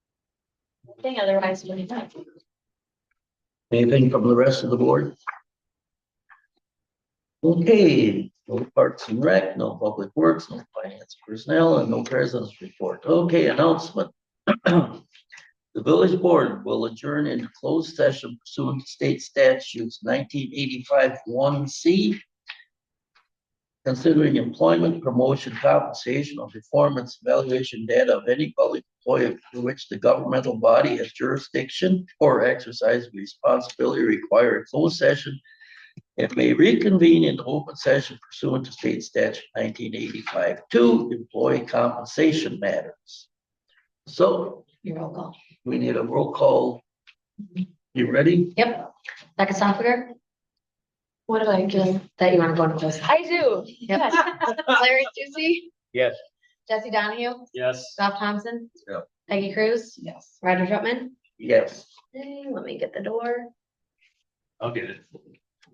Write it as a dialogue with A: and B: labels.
A: thing, otherwise we need not.
B: Anything from the rest of the board? Okay, no parks and rec, no public works, no finance personnel, and no presence report. Okay, announcement. The village board will adjourn in closed session pursuant to state statutes nineteen eighty-five one C. Considering employment, promotion, compensation, or performance evaluation data of any public employee for which the governmental body has jurisdiction or exercise responsibility require a closed session. It may reconvene in open session pursuant to state statute nineteen eighty-five two, employee compensation matters. So
A: Your roll call.
B: we need a roll call. You ready?
C: Yep. Becca Software,
A: What am I doing?
C: that you want to go into close.
D: I do.
C: Yep.
D: Mm-hmm. Uh, Larry Susie.
E: Yes.
C: Jesse Donahue,
E: Yes.
C: Bob Thompson.
B: Yep.
C: Peggy Cruz,
A: Yes.
C: Roger Troutman.
B: Yes.
C: Hey, let me get the door.
E: I'll get it.